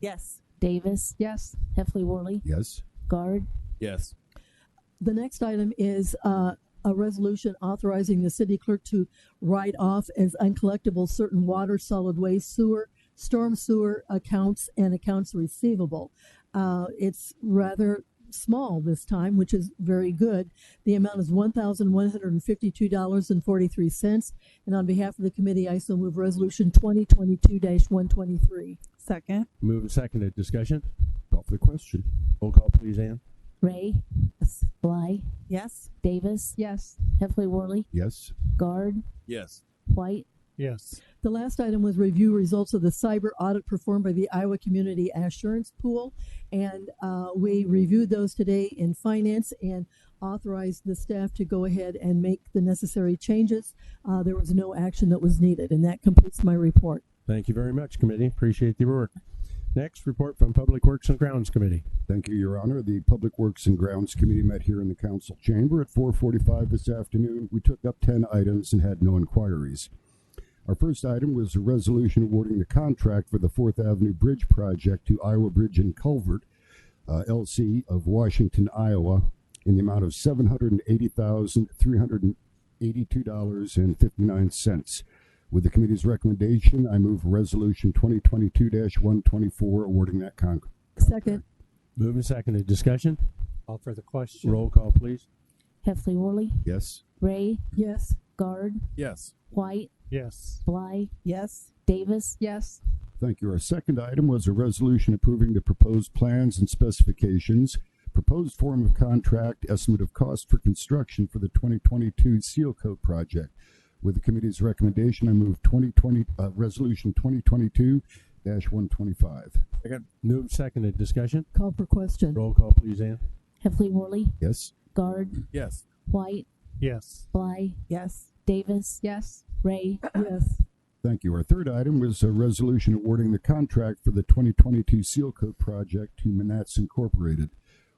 Yes. Davis, Yes. Heffley Worley, Yes. Guard, Yes. The next item is uh, a resolution authorizing the city clerk to write off as uncollectible certain water, solid waste, sewer, storm sewer accounts, and accounts receivable. Uh, It's rather small this time, which is very good. The amount is one thousand one hundred and fifty-two dollars and forty-three cents. And on behalf of the committee, I so move Resolution twenty twenty-two one twenty-three. Second. Move and seconded. Discussion. Call for the question. Roll call, please, Ann. Ray, Yes. Bly, Yes. Davis, Yes. Heffley Worley, Yes. Guard, Yes. White, Yes. The last item was review results of the cyber audit performed by the Iowa Community Assurance Pool. And uh, we reviewed those today in finance and authorized the staff to go ahead and make the necessary changes. Uh, There was no action that was needed, and that completes my report. Thank you very much, committee. Appreciate the work. Next, report from Public Works and Grounds Committee. Thank you, Your Honor. The Public Works and Grounds Committee met here in the council chamber at four forty-five this afternoon. We took up ten items and had no inquiries. Our first item was a resolution awarding the contract for the Fourth Avenue Bridge project to Iowa Bridge and Culvert, uh, LC of Washington, Iowa, in the amount of seven hundred and eighty thousand, three hundred and eighty-two dollars and fifty-nine cents. With the committee's recommendation, I move Resolution twenty twenty-two one twenty-four awarding that con- Second, Move and seconded. Discussion. Call for the question. Roll call, please. Heffley Worley, Yes. Ray, yes. Guard, Yes. White, Yes. Bly, Yes. Davis, Yes. Thank you. Our second item was a resolution approving the proposed plans and specifications, proposed form of contract, estimate of cost for construction for the 2022 Seal Coat project. With the committee's recommendation, I move 2020, uh, Resolution 2022-125. Move and seconded. Discussion. Call for question. Roll call, please, Ann. Heffley Worley, Yes? Guard, Yes. White, Yes. Bly, Yes. Davis, Yes. Ray, Yes. Thank you. Our third item was a resolution awarding the contract for the 2022 Seal Coat project to Manats Incorporated.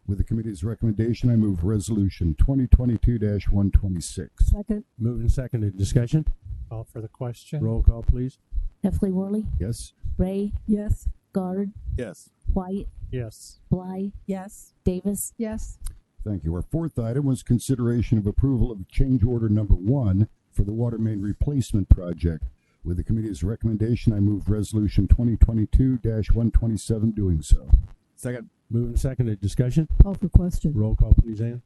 With the committee's recommendation, I move Resolution 2022-126. Second, Move and seconded. Discussion. Call for the question. Roll call, please. Heffley Worley, Yes? Ray, yes. Guard, Yes. White, Yes. Bly, Yes. Davis, Yes. Thank you. Our fourth item was consideration of approval of change order number one for the water main replacement project. With the committee's recommendation, I move resolution twenty twenty-two one twenty-seven doing so. Second. Move and seconded. Discussion. Call for question. Roll call, please, Ann.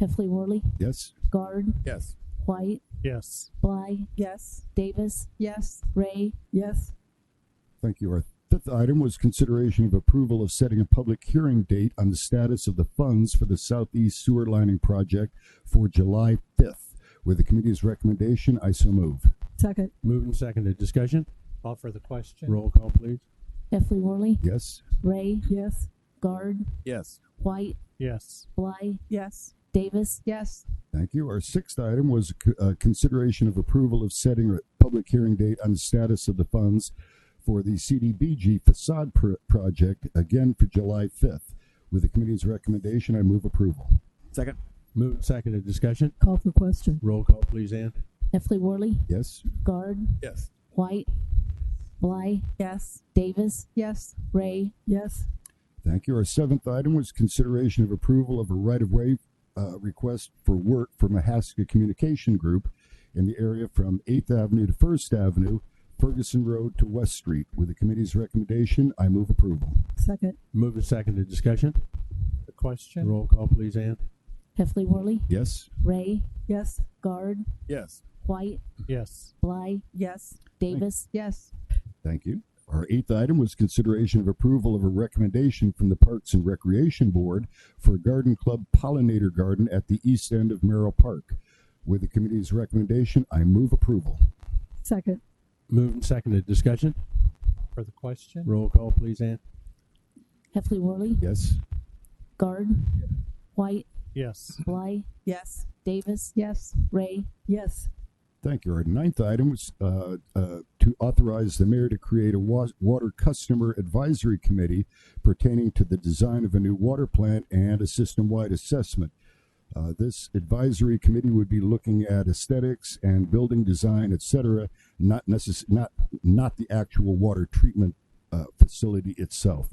Heffley Worley, Yes? Guard, Yes. White, Yes. Bly, Yes. Davis, Yes. Ray, Yes. Thank you. Our fifth item was consideration of approval of setting a public hearing date on the status of the funds for the southeast sewer lining project for July fifth. With the committee's recommendation, I so move. Second, Move and seconded. Discussion. Call for the question. Roll call, please. Heffley Worley, Yes? Ray, yes. Guard, Yes. White, Yes. Bly, Yes. Davis, Yes. Thank you. Our sixth item was c- uh, consideration of approval of setting a public hearing date on the status of the funds for the CDBG facade pr- project, again for July 5th. With the committee's recommendation, I move approval. Second. Move and seconded. Discussion. Call for question. Roll call, please, Ann. Heffley Worley, Yes? Guard, Yes. White, Bly, Yes. Davis, Yes. Ray, Yes. Thank you. Our seventh item was consideration of approval of a right-of-way uh, request for work for Mahaska Communication Group in the area from 8th Avenue to 1st Avenue, Ferguson Road to West Street. With the committee's recommendation, I move approval. Second, Move and seconded. Discussion. The question. Roll call, please, Ann. Heffley Worley, Yes? Ray, yes. Guard, Yes. White, Yes. Bly, Yes. Davis, Yes. Thank you. Our eighth item was consideration of approval of a recommendation from the Parks and Recreation Board for a garden club pollinator garden at the east end of Merrill Park. With the committee's recommendation, I move approval. Second, Move and seconded. Discussion. For the question. Roll call, please, Ann. Heffley Worley, Yes? Guard, White, Yes. Bly, Yes. Davis, Yes. Ray, yes. Thank you. Our ninth item was uh, uh, to authorize the mayor to create a wa- water customer advisory committee pertaining to the design of a new water plant and a system-wide assessment. Uh, this advisory committee would be looking at aesthetics and building design, et cetera, not necess- not not the actual water treatment uh, facility itself.